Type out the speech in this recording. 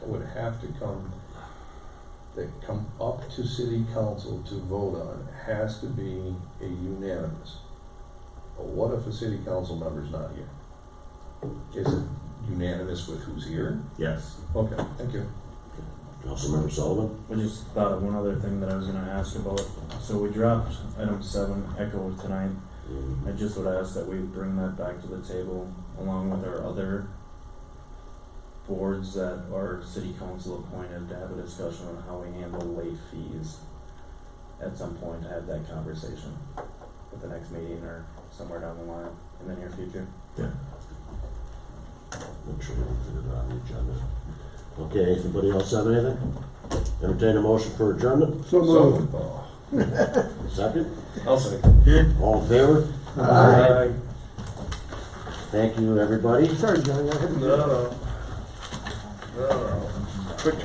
would have to come, that come up to city council to vote on has to be a unanimous. But what if a city council member's not here? Is it unanimous with who's here? Yes. Okay, thank you. Councilmember Sullivan? I just thought of one other thing that I was gonna ask about. So we dropped item seven, Echo tonight. Mm, I just would ask that we bring that back to the table along with our other boards that our city council appointed to have a discussion on how we handle late fees. At some point, have that conversation at the next meeting or somewhere down the line in the near future. Make sure we put it on the agenda. Okay, anybody else have anything? Entertain a motion for adjournment? So moved. Second? I'll second. All in favor? Aye. Thank you, everybody. Sorry, Johnny, I had to. No, no. No, no.